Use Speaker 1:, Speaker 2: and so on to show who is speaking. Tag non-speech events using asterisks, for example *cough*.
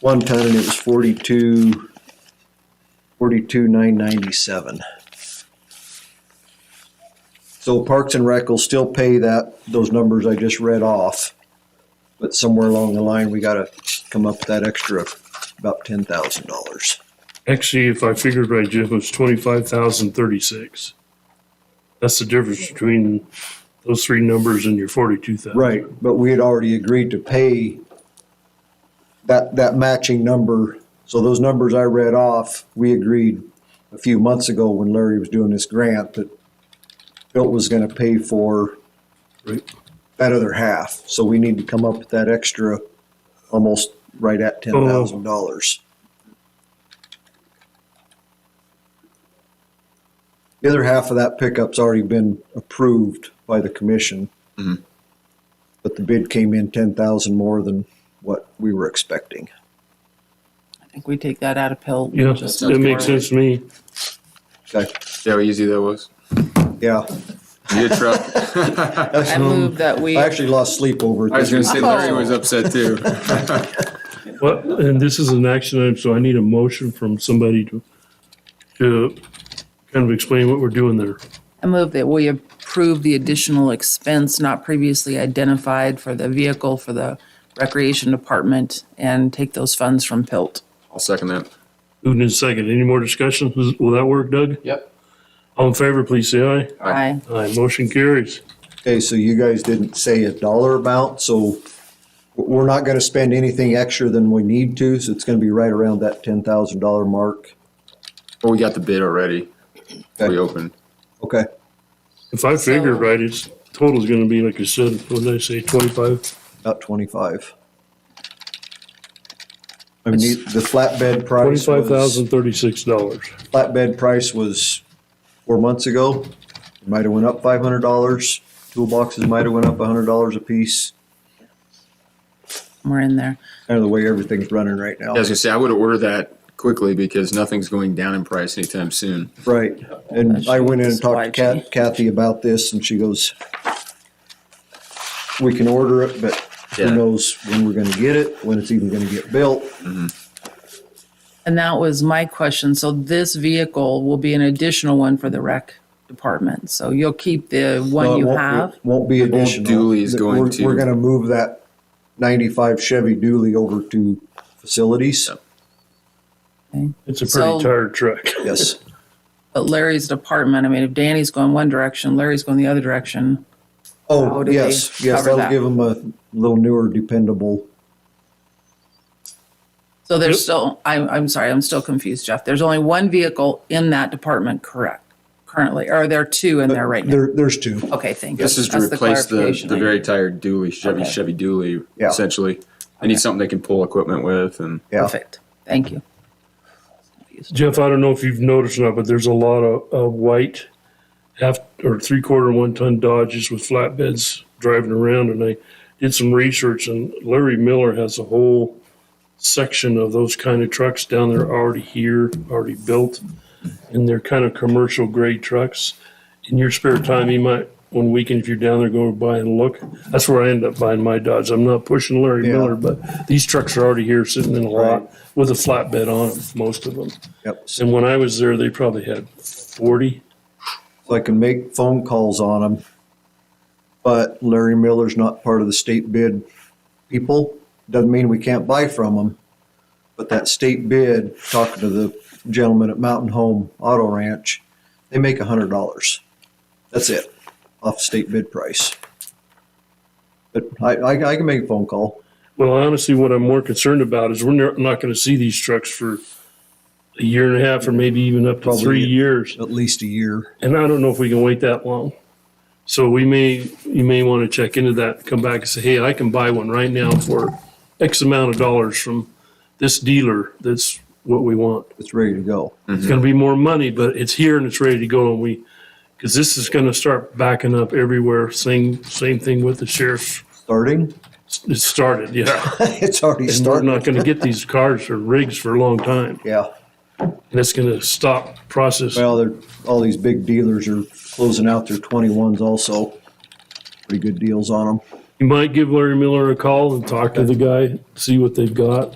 Speaker 1: one ton, and it was forty-two, forty-two nine ninety-seven. So Parks and Rec will still pay that, those numbers I just read off. But somewhere along the line, we gotta come up with that extra, about ten thousand dollars.
Speaker 2: Actually, if I figured right, Jeff, it was twenty-five thousand thirty-six. That's the difference between those three numbers and your forty-two thousand.
Speaker 1: Right, but we had already agreed to pay that, that matching number. So those numbers I read off, we agreed a few months ago when Larry was doing this grant that Bill was gonna pay for
Speaker 2: Right.
Speaker 1: that other half. So we need to come up with that extra, almost right at ten thousand dollars. The other half of that pickup's already been approved by the commission
Speaker 3: Mm-hmm.
Speaker 1: but the bid came in ten thousand more than what we were expecting.
Speaker 4: I think we take that out of pill.
Speaker 2: Yeah,
Speaker 4: Just-
Speaker 2: that makes sense to me.
Speaker 1: Okay,
Speaker 3: See how easy that was?
Speaker 1: yeah.
Speaker 3: You get truck.
Speaker 4: I move that we,
Speaker 1: Um, I actually lost sleep over it.
Speaker 3: I was gonna
Speaker 4: *laughs*
Speaker 3: say Larry was upset too.
Speaker 2: What, and this is an action item, so I need a motion from somebody to, to kind of explain what we're doing there.
Speaker 4: I move that we approve the additional expense not previously identified for the vehicle for the recreation department and take those funds from PILT.
Speaker 3: I'll second that.
Speaker 2: Moving in second. Any more discussion? Does- Will that work, Doug?
Speaker 3: Yep.
Speaker 2: All in favor, please say aye.
Speaker 4: Aye.
Speaker 2: Aye, motion carries.
Speaker 1: Okay, so you guys didn't say a dollar amount, so we're not gonna spend anything extra than we need to, so it's gonna be right around that ten thousand dollar mark.
Speaker 3: Well, we got the bid already. We
Speaker 1: Okay.
Speaker 3: opened.
Speaker 1: Okay,
Speaker 2: If I figured
Speaker 4: So-
Speaker 2: right, it's, total's gonna be, like you said, what did I say, twenty-five?
Speaker 1: about twenty-five. I mean, the the flatbed price was,
Speaker 2: Twenty-five thousand thirty-six dollars.
Speaker 1: flatbed price was four months ago. It Might have went up five hundred dollars. Toolboxes might have went up a hundred dollars a piece.
Speaker 4: We're in there.
Speaker 1: kind of the way everything's running right now.
Speaker 3: I was gonna say, I would order that quickly because nothing's going down in price anytime soon.
Speaker 1: Right. And I went in and talked to
Speaker 4: Supply
Speaker 1: Kat- Kathy about this and she goes, we can order it, but who
Speaker 3: Yeah.
Speaker 1: knows when we're gonna get it, when it's even gonna get built.
Speaker 4: And that was my question. So this vehicle will be an additional one for the rec department. So you'll keep the
Speaker 1: No,
Speaker 4: one
Speaker 1: it
Speaker 4: you
Speaker 1: won't-
Speaker 4: have.
Speaker 1: it Won't be additional.
Speaker 3: dually is going
Speaker 1: We're-
Speaker 3: to-
Speaker 1: We're gonna move that ninety-five Chevy dually over to facilities.
Speaker 3: Yep.
Speaker 2: It's a
Speaker 4: So-
Speaker 2: pretty tired truck.
Speaker 1: Yes.
Speaker 4: But Larry's department, I mean, if Danny's going one direction, Larry's going the other direction. How
Speaker 1: Oh,
Speaker 4: do they
Speaker 1: yes, yes,
Speaker 4: cover
Speaker 1: that'll
Speaker 4: that?
Speaker 1: give them a little newer dependable.
Speaker 4: So
Speaker 2: Yep.
Speaker 4: there's still, I'm, I'm sorry, I'm still confused, Jeff. There's only one vehicle in that department, correct? Currently, or there are two in there right now?
Speaker 1: There, there's two.
Speaker 4: Okay, thank you.
Speaker 3: This is to
Speaker 4: That's the
Speaker 3: replace the,
Speaker 4: clarification
Speaker 3: the
Speaker 4: I
Speaker 3: very
Speaker 4: needed.
Speaker 3: tired dually, Chevy,
Speaker 4: Okay.
Speaker 3: Chevy dually,
Speaker 1: Yeah.
Speaker 3: essentially. They need something they can pull equipment with and
Speaker 1: Yeah.
Speaker 4: Perfect, thank you.
Speaker 2: Jeff, I don't know if you've noticed or not, but there's a lot of, of white half or three quarter one ton Dodges with flatbeds driving around. And I did some research, and Larry Miller has a whole section of those kind of trucks down there already here, already built. And they're kind of commercial grade trucks. In your spare time, you might, one weekend, if you're down there, go by and look. That's where I end up buying my Dodge. I'm not pushing Larry
Speaker 1: Yeah.
Speaker 2: Miller, but these trucks are already here sitting in a
Speaker 1: Right.
Speaker 2: lot with a flatbed on them, most of them.
Speaker 1: Yep. So
Speaker 2: And when I was there, they probably had 40.
Speaker 1: I can make phone calls on them. But Larry Miller's not part of the state bid people. Doesn't mean we can't buy from them. But that state bid, talking to the gentleman at Mountain Home Auto Ranch, they make a hundred dollars. That's it, off state bid price. But I, I, I can make a phone call.
Speaker 2: Well, honestly, what I'm more concerned about is we're ne- not going to see these trucks for a year and a half or maybe even up to
Speaker 1: Probably.
Speaker 2: three years.
Speaker 1: At least a year.
Speaker 2: And I don't know if we can wait that long. So we may, you may want to check into that, come back and say, hey, I can buy one right now for X amount of dollars from this dealer. That's what we want.
Speaker 1: It's ready to go.
Speaker 2: It's going to be more money, but it's here and it's ready to go. And we, because this is going to start backing up everywhere. Same, same thing with the sheriff's
Speaker 1: Starting? *laughs*
Speaker 2: It started, yeah.
Speaker 1: It's already
Speaker 2: And we're
Speaker 1: starting.
Speaker 2: not gonna get these cars or rigs for a long time.
Speaker 1: Yeah.
Speaker 2: And it's gonna stop process.
Speaker 1: Well, they're, all these big dealers are closing out their twenty-ones also. Pretty good deals on them.
Speaker 2: You might give Larry Miller a call and talk to the guy, see what they've got.